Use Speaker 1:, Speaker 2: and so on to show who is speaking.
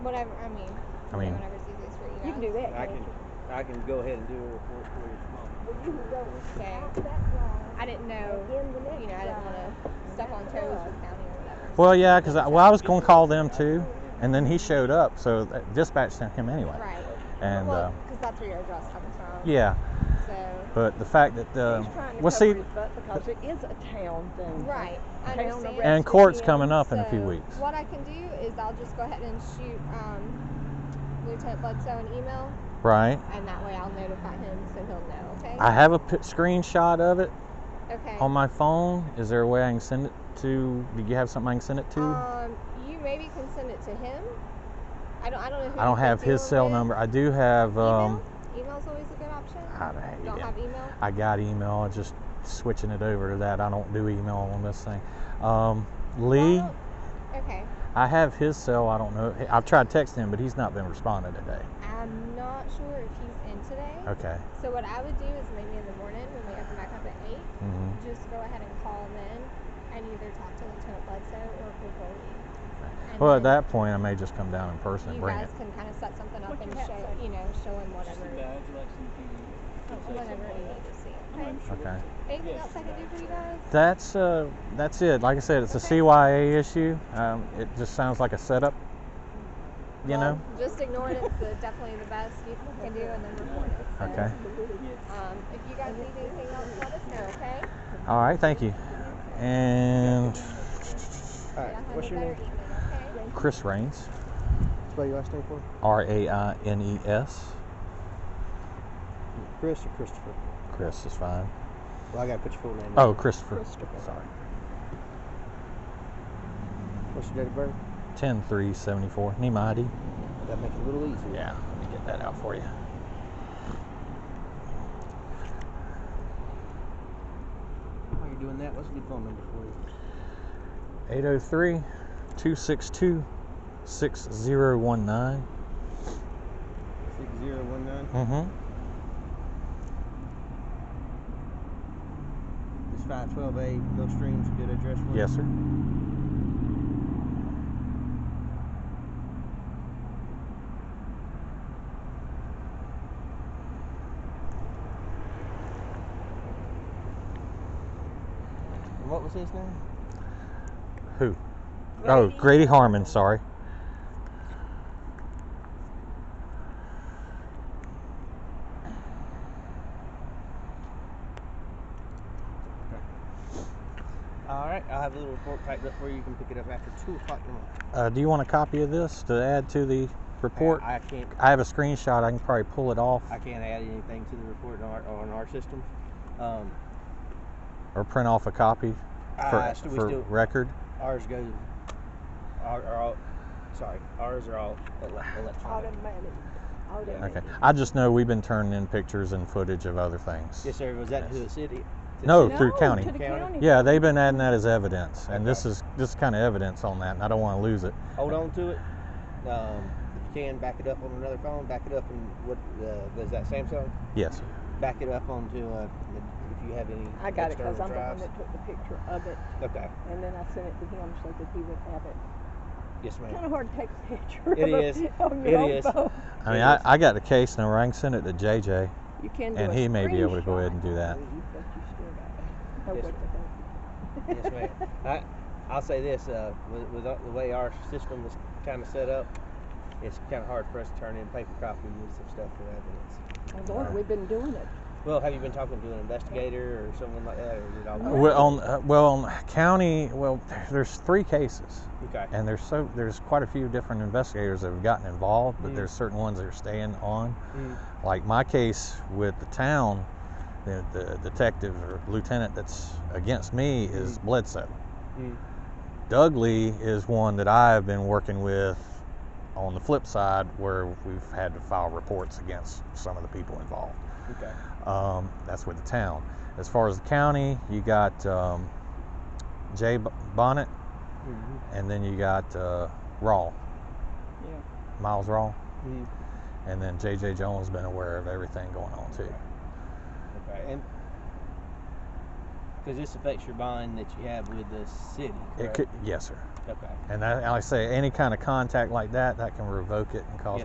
Speaker 1: Whatever. I mean.
Speaker 2: I mean-
Speaker 1: Whatever's easiest for you.
Speaker 3: You can do that.
Speaker 4: I
Speaker 3: can't
Speaker 4: can,
Speaker 3: you?
Speaker 4: I can go ahead and do it for, for your mom.
Speaker 3: Well, you can go
Speaker 1: Okay.
Speaker 3: out that line
Speaker 1: I didn't know.
Speaker 3: and then the
Speaker 1: You know, I
Speaker 3: next
Speaker 1: didn't want
Speaker 3: line.
Speaker 1: to step on toes with county or whatever.
Speaker 2: Well, yeah, because I, well, I was going to call them too, and then he showed up, so th- dispatch sent him anyway.
Speaker 1: Right.
Speaker 2: And uh,
Speaker 1: well, because that's where your address comes from.
Speaker 2: yeah,
Speaker 1: So.
Speaker 2: but the fact that uh,
Speaker 3: He's trying to
Speaker 2: well,
Speaker 3: cover
Speaker 2: see,
Speaker 3: his butt because it is a town thing.
Speaker 1: Right. I
Speaker 3: Town
Speaker 1: understand.
Speaker 3: arrest
Speaker 2: and court's coming up in a
Speaker 1: So,
Speaker 2: few weeks.
Speaker 1: What I can do is I'll just go ahead and shoot um, Lieutenant Bledsoe an email,
Speaker 2: Right.
Speaker 1: and that way I'll notify him so he'll know. Okay.
Speaker 2: I have a p- screenshot of it
Speaker 1: okay.
Speaker 2: on my phone. Is there a way I can send it to? Do you have something I can send it to?
Speaker 1: Um, you maybe can send it to him. I don't. I don't know. Who
Speaker 2: I don't
Speaker 1: he's been
Speaker 2: have his
Speaker 1: dealing
Speaker 2: cell
Speaker 1: with.
Speaker 2: number. I do have. Um,
Speaker 1: email. Email's always a good option.
Speaker 2: I don't, have-
Speaker 1: Don't
Speaker 2: yeah.
Speaker 1: have e-, email.
Speaker 2: I got email. I just switching it over to that. I don't do email on this thing. Um,
Speaker 1: Well, I
Speaker 2: Lee,
Speaker 1: don't- Oh, okay.
Speaker 2: I have his cell. I don't know. I've tried texting him, but he's not been responding today.
Speaker 1: I'm not sure if he's in today.
Speaker 2: Okay.
Speaker 1: So what I would do is maybe in the morning when we open back up at eight,
Speaker 2: hmm
Speaker 1: just go ahead and call him in and either talk to Lieutenant Bledsoe or Nicole Lee. And
Speaker 2: Well, at
Speaker 1: then
Speaker 2: that point, I may just come down in person and
Speaker 1: you
Speaker 2: bring
Speaker 1: guys
Speaker 2: it.
Speaker 1: can kind of set something up
Speaker 4: What
Speaker 1: and
Speaker 4: your hat
Speaker 1: show,
Speaker 4: say?
Speaker 1: you know, show him
Speaker 4: Just
Speaker 1: whatever,
Speaker 4: a badge, like something. it's like
Speaker 1: whatever
Speaker 4: something
Speaker 1: you
Speaker 4: like
Speaker 1: need to see.
Speaker 4: that.
Speaker 1: Okay.
Speaker 4: I'm sure
Speaker 2: Okay.
Speaker 1: Anything
Speaker 4: Yes,
Speaker 1: else I can do
Speaker 4: badge.
Speaker 1: for you guys?
Speaker 2: That's uh, that's it. Like I said, it's a
Speaker 1: Okay.
Speaker 2: CYA issue. Um, it just sounds like a setup. You
Speaker 1: Well,
Speaker 2: know.
Speaker 1: just ignore it. It's the, definitely the best you can do, and then report it. So,
Speaker 2: Okay.
Speaker 1: Um, if you guys need anything else, let us know. Okay.
Speaker 2: All right. Thank you. And
Speaker 1: Y'all
Speaker 5: All right,
Speaker 1: have
Speaker 5: what's
Speaker 1: a
Speaker 5: your
Speaker 1: better
Speaker 5: name?
Speaker 1: evening. Okay.
Speaker 2: Chris Raines,
Speaker 5: Spell your last name for me.
Speaker 2: R A I N E S.
Speaker 5: Chris or Christopher?
Speaker 2: Chris is fine.
Speaker 5: Well, I gotta put your full name. in.
Speaker 2: Oh, Christopher.
Speaker 5: Christopher.
Speaker 2: Sorry.
Speaker 5: What's your date of birth?
Speaker 2: Ten three seventy four. Nemati.
Speaker 5: That makes it a little easier.
Speaker 2: Yeah. Let me get that out for you.
Speaker 5: While you're doing that, what's a good phone number for you?
Speaker 2: 803 262 6019.
Speaker 5: Six zero one nine.
Speaker 2: Mm-hmm.
Speaker 5: It's five twelve A Mill Stream's a good address for you.
Speaker 2: Yes, sir.
Speaker 5: And what was his name?
Speaker 2: Oh, Grady Harmon, sorry.
Speaker 5: All right, I'll have a little report typed up for you. You can pick it up after two o'clock tomorrow.
Speaker 2: Uh, do you want a copy of this to add to the report?
Speaker 5: I, I can't.
Speaker 2: I have a screenshot. I can probably pull it off
Speaker 5: I can't add anything to the report on our, on our system. Um,
Speaker 2: or print off a copy for,
Speaker 5: Uh, I, still, we
Speaker 2: for
Speaker 5: still
Speaker 2: record.
Speaker 5: ours goes. Our, are all, sorry, ours are all ele- electronic.
Speaker 3: Automatic. Automatic.
Speaker 2: Okay. I just know we've been turning in pictures and footage of other things.
Speaker 5: Yes, sir. Was that to
Speaker 2: Yes.
Speaker 5: the city? To
Speaker 2: No,
Speaker 5: the
Speaker 2: through
Speaker 3: No,
Speaker 2: county.
Speaker 3: To the
Speaker 5: County.
Speaker 3: county.
Speaker 2: Yeah, they've been adding that as evidence, and this
Speaker 5: Okay.
Speaker 2: is this is kind of evidence on that, and I don't want to lose it.
Speaker 5: city? Hold on to it. Um, if you can, back it up on another phone. Back it up on what uh, was that Samsung?
Speaker 2: Yes. sir.
Speaker 5: Back it up onto uh, if you have any.
Speaker 3: I got it
Speaker 5: external
Speaker 3: because I'm the one
Speaker 5: drives.
Speaker 3: that took the picture of it
Speaker 5: Okay.
Speaker 3: and then I sent it to him so that he would have it.
Speaker 5: Yes,
Speaker 3: Kind
Speaker 5: ma'am.
Speaker 3: of hard to take a picture
Speaker 5: It
Speaker 3: of
Speaker 5: is.
Speaker 3: it on
Speaker 5: It
Speaker 3: your own
Speaker 5: is.
Speaker 3: phone.
Speaker 2: I mean,
Speaker 5: It
Speaker 2: I,
Speaker 5: is.
Speaker 2: I got the case number. I can send it to JJ,
Speaker 3: You can do
Speaker 2: and
Speaker 3: a
Speaker 2: he may be able to go
Speaker 3: screenshot,
Speaker 2: ahead and do that.
Speaker 3: I believe, but you still gotta know
Speaker 5: Yes,
Speaker 3: what to do.
Speaker 5: yes, ma'am. I, I'll say this: uh, with, with the way our system is kind of set up, it's kind of hard for us to turn in paper copies of stuff for evidence.
Speaker 3: And Lord, we've been doing it.
Speaker 5: Well, have you been talking to an investigator or someone like that, or is it all?
Speaker 2: Well, on uh, well on county, well, there's three cases.
Speaker 5: Okay.
Speaker 2: and there's so there's quite a few different investigators that have gotten involved, but
Speaker 5: Mm.
Speaker 2: there's certain ones that are staying on.
Speaker 5: Mm.
Speaker 2: Like my case with the town, the, the detective or lieutenant that's against me is Bledsoe.
Speaker 5: Mm.
Speaker 2: Doug Lee is one that I've been working with. On the flip side, where we've had to file reports against some of the people involved.
Speaker 5: Okay.
Speaker 2: Um, that's with the town. As far as the county, you got um, Jay B- Bonnet
Speaker 5: Mhm.
Speaker 2: and then you got uh, Raw.
Speaker 3: Yeah.
Speaker 2: Miles Raw.
Speaker 5: Mhm.
Speaker 2: And then JJ Jones been aware of everything going on too.
Speaker 5: Okay. And Because this affects your bond that you have with the city.
Speaker 2: It
Speaker 5: correct?
Speaker 2: could, yes, sir.
Speaker 5: Okay.
Speaker 2: And that, like I say, any kind of contact like that, that can revoke it and cause